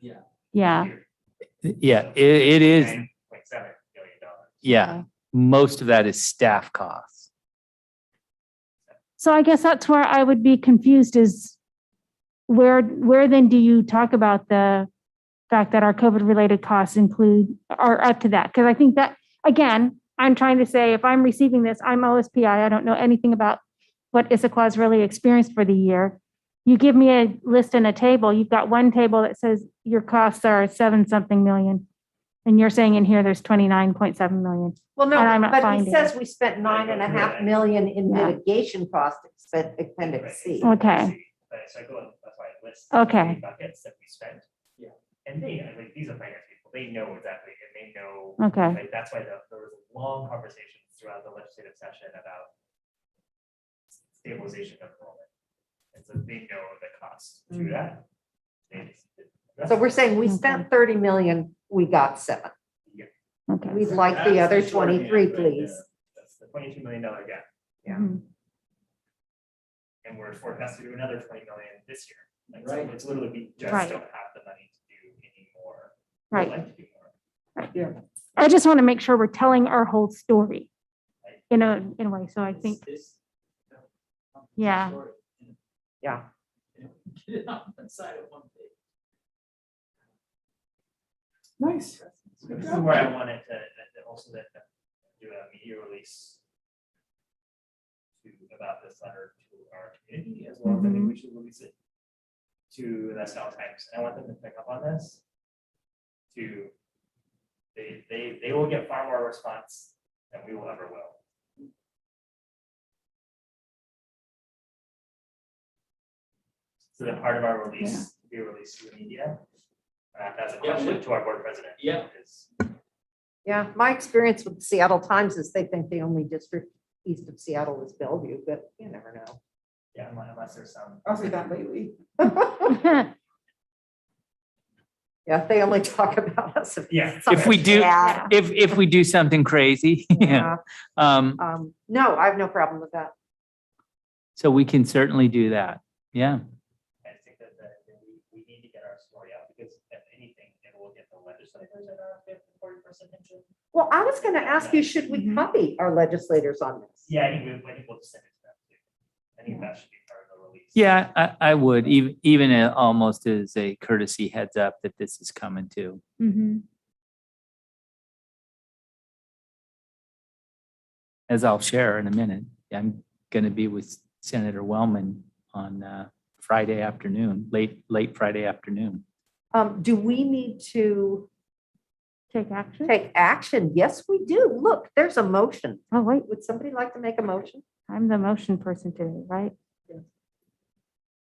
Yeah, Yeah, it, it is, Like seven million dollars. yeah, most of that is staff costs. so I guess that's where I would be confused is where, where then do you talk about the fact that our COVID-related costs include, are up to that? Because I think that, again, I'm trying to say, if I'm receiving this, I'm OSPI, I don't know anything about what Issaquah's really experienced for the year. You give me a list and a table, you've got one table that says your costs are seven something million. And you're saying in here, there's 29.7 million. Well, no, And I'm not but finding he says we spent nine and a half million in Yeah. mitigation cost expen- Right, appendix C. it's- Okay. But so I go, and- that's why I list. the Okay. three Buckets that we spent. Yeah. And they, I mean, these are finance people, they know exactly, and they know, Okay, like, that's why the- there was long conversations throughout the legislative session about stabilization of enrollment. And so they know the cost to Mhm. that. They just- So we're saying we spent thirty million, we got seven. okay. We'd like the That's other short hand twenty-three, right there. please. That's the twenty-two million dollar gap, Yeah. Mhm. and we're forecast to do another twenty million this year. Like, so Right. it's literally, we just Right. don't have the money to do any more. We'd Right. like to do more. I just want to make sure we're telling our whole story in a, in a way. So I think, This- Yeah. Yeah. Get it on one side of one page. Nice. So This is where I wanted to, that- that also that, that do a media release to, about this letter to our community as well, as I think Mm-hmm. we should release it to the South Times, and I want them to pick up on this. To, they, they, they will get far more response than we will ever will. So that part of our release, be released to the media, uh, that's a Yeah, question what- to our board president. Yeah. Is Yeah, my experience with the Seattle Times is they think the only district east of Seattle is Bellevue, but you never know. Yeah, unless, unless there's some. I'll say that lately. Yeah, they only talk about us. Yeah. If we do, Yeah. if, if we do something crazy, yeah. Yeah, Um, Um, no, I have no problem with that. so we can certainly do that. Yeah, I think that, that that we, we need to get our story out because if anything, it will get the legislators at our fifth, forty percent attention. Well, I was gonna ask you, should Mm-hmm. we copy our legislators on this? Yeah, I think we, I think we'll just send it to them. too. I think that should be part of the release. yeah, I, I would, even, even a- almost as a courtesy heads up that this is coming too. Mhm. As I'll share in a minute, I'm going to be with Senator Wellman on, uh, Friday afternoon, late, late Friday afternoon. Um, do we need to take action. take action? Yes, we do. Look, there's a motion. Oh, wait, Would somebody like to make a motion? I'm the motion person today, right?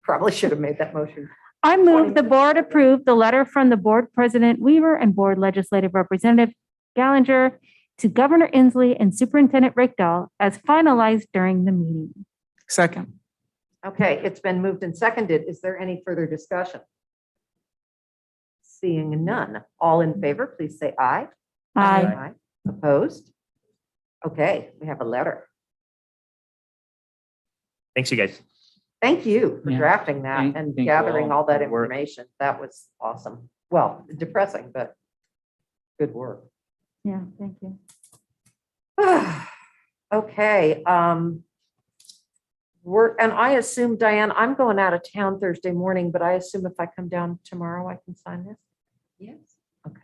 Probably should have made that motion. I move the minutes. board approve the letter from the board president Weaver and board legislative representative Gallagher to Governor Inslee and Superintendent Rickdahl as finalized during the meeting. Second. Okay, it's been moved and seconded. Is there any further discussion? Seeing none, all in favor, please say aye. I, Opposed? Okay, we have a letter. Thanks, you guys. Thank you for Yeah. drafting that Thank- and thank you gathering all all that for the work. information. That was awesome. Well, depressing, but good work. yeah, thank you. Okay, um. We're, and I assume Diane, I'm going out of town Thursday morning, but I assume if I come down tomorrow, I can sign this? Yes. Okay.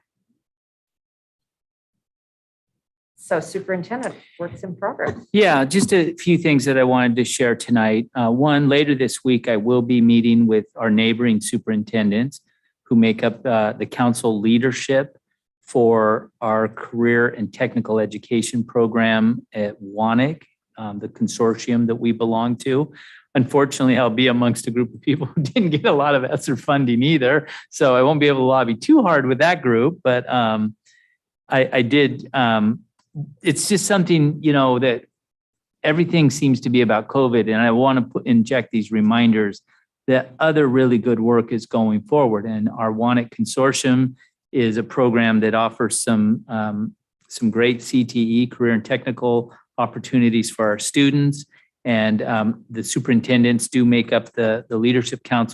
So superintendent, works in progress. Yeah, just a few things that I wanted to share tonight. Uh, One, later this week, I will be meeting with our neighboring superintendents who make up uh, the council leadership for our career and technical education program at Wanik, um, the consortium that we belong to. Unfortunately, I'll be amongst a group of people who didn't get a lot of ESSER funding either, so I won't be able to lobby too hard with that group, but um, I I did, um, it's just something, you know, that everything seems to be about COVID, and I want to put, inject these reminders that other really good work is going forward, and our Wanted Consortium is a program that offers some, um, some great CTE, career and technical opportunities for our students. And, um, the superintendents do make up the, the leadership council.